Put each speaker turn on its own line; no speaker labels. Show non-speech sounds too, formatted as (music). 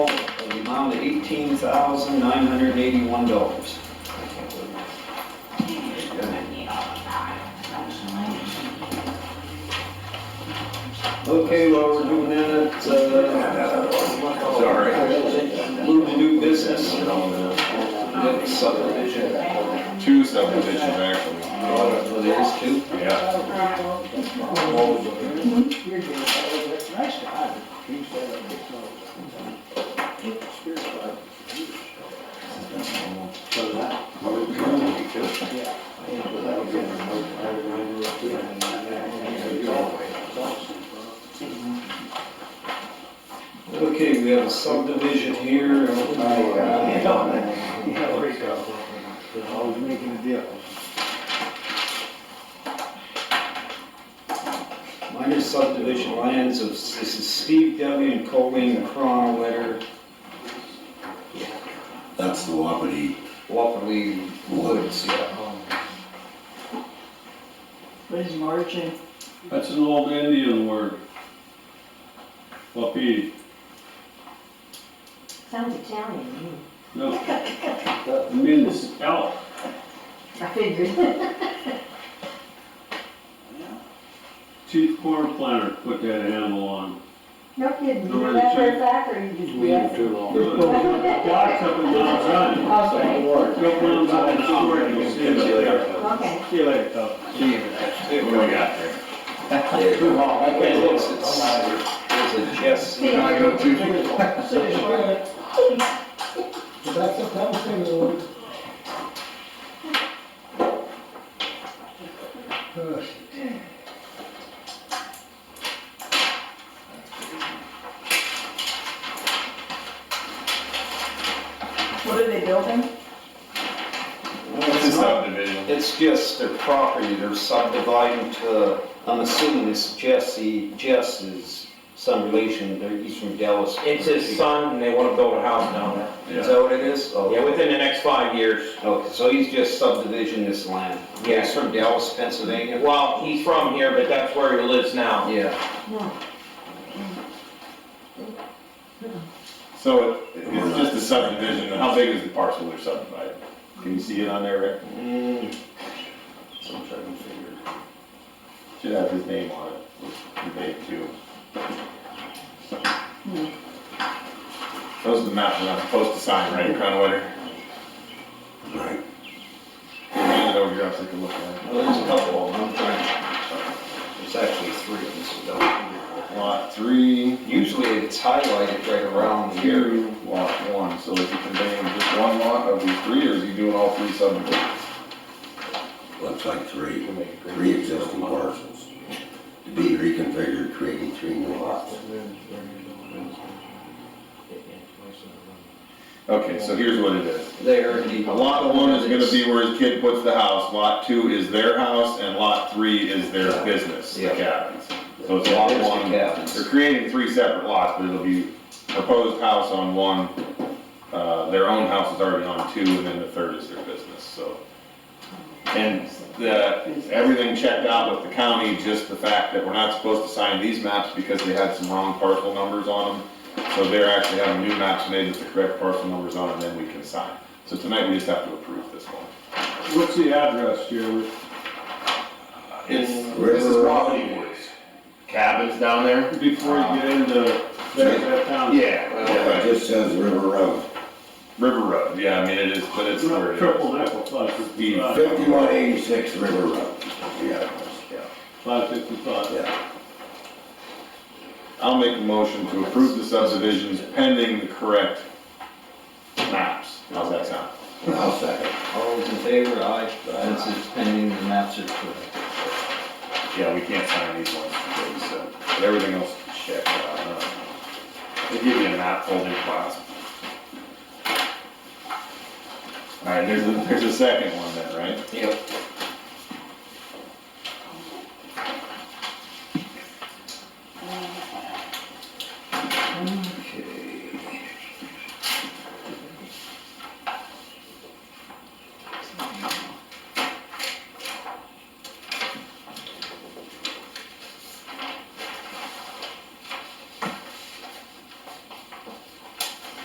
down to $18,981. I can't believe it. Okay, while we're doing that, uh.
Sorry.
Move to new business. That subdivision.
Two subdivisions, actually.
Oh, there's two.
Yeah.
Okay, we have a subdivision here. Uh,
Always making a deal.
Minor subdivision lands of, this is Steve W. and Colleen Cron, letter
That's the Wapiti.
Wapelli Woods, yeah.
What is margin?
That's an old Indian word. Wapiti,
Sounds Italian.
no. It means elk.
I figured.
Chief Corn Planter put that animal on.
No kidding, you
No,
know that for a
it's-
fact, or you just guessed?
too long.
Block's up in Mount Zion.
Okay,
Go to Mount Zion, I'll work, you'll see it there.
(laughs) okay.
See you later, Tom.
What we got there?
Too long, I
Okay,
can't
it's,
listen.
it's- there's a Jess.
See, I What are they building?
It's a subdivision.
It's just their property, they're subdividing to, I'm assuming this Jesse, Jess is some relation, they're, he's from Dallas.
It's his son, and they wanna build a house down there.
Is that what it is? Oh,
Yeah, within the next five years.
Okay, so he's just subdivision this land?
Yeah.
He's from Dallas, Pennsylvania?
Well, he's from here, but that's where he lives now.
Yeah.
No.
So it- it's just a subdivision, how big is the parcel they're subdividing? Can you see it on there, Rick?
Mm. So I'm trying to figure.
Should have his name on it, the date too. Those are the maps we're not supposed to sign, right, Crownwetter?
Right.
Hand it over here, I'll take a look at
Well, there's a couple of them, I'm trying. There's actually three of them, so don't.
it. Lot three,
Usually it's highlighted right around here.
two, lot one, so is he conveying just one lot of these three, or is he doing all three subdivisions?
Looks like three, three existing parcels to be reconfigured, creating three new lots.
Okay, so here's what it is.
There. he-
Lot one is gonna be where his kid puts the house, lot two is their house, and lot three is their business, the
Yeah.
cabins. So it's lot
There's the
one,
cabins.
they're creating three separate lots, but it'll be proposed house on one, uh, their own house is already on two, and then the third is their business, so. And the, everything checked out with the county, just the fact that we're not supposed to sign these maps because they had some wrong parcel numbers on them. So they're actually having new maps made with the correct parcel numbers on, and then we can sign. So tonight, we just have to approve this one.
What's the address here?
It's, this is
River-
Wapiti Woods. Cabins down there?
Before
uh,
you get into that, that town.
Yeah, yeah,
It
right.
just says River Road,
River Road, yeah, I mean, it is, but it's where it is.
Triple nickel, five fifty-five,
fifty-one eighty-six River Road. Yeah, yeah,
five fifty-five.
yeah.
I'll make a motion to approve the subdivisions pending the correct maps. How's that sound?
I'll second.
All those in favor, aye. This is pending the maps are correct.
Yeah, we can't sign these ones today, so, but everything else is checked out. huh? They give you a map folder class. All right, there's, a- there's a second one then, right?
Yep.